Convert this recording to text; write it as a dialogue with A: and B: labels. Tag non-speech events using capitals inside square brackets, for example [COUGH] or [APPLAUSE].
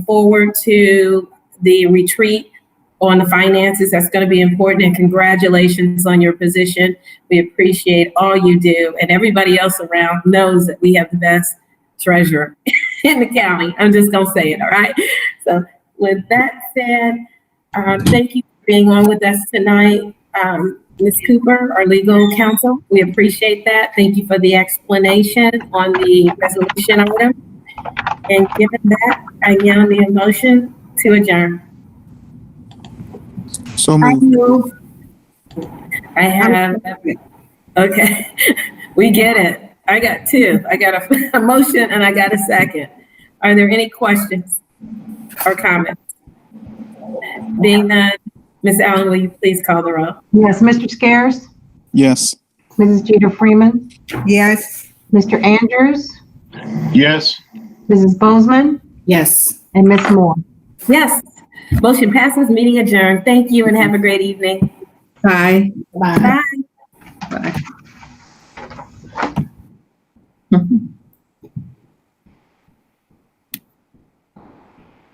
A: forward to the retreat on the finances. That's going to be important. And congratulations on your position. We appreciate all you do. And everybody else around knows that we have the best treasurer [LAUGHS] in the county. I'm just going to say it, all right? So, with that said, um, thank you for being on with us tonight, um, Ms. Cooper, our legal counsel. We appreciate that. Thank you for the explanation on the resolution item. And given that, I now need a motion to adjourn.
B: So
C: I
B: moved.
C: move,
A: I have, okay, [LAUGHS] we get it. I got two. I got a, [LAUGHS] a motion and I got a second. Are there any questions or comments? Being none, Ms. Allen, will you please call the roll?
C: yes, Mr. Scares,
B: Yes.
C: Mrs. Jeter Freeman,
D: Yes.
C: Mr. Andrews,
E: Yes.
C: Mrs. Bozeman,
D: Yes.
C: and Ms. Moore.
A: Yes, motion passes, meeting adjourned. Thank you and have a great evening.
D: Bye. Bye.
A: Bye.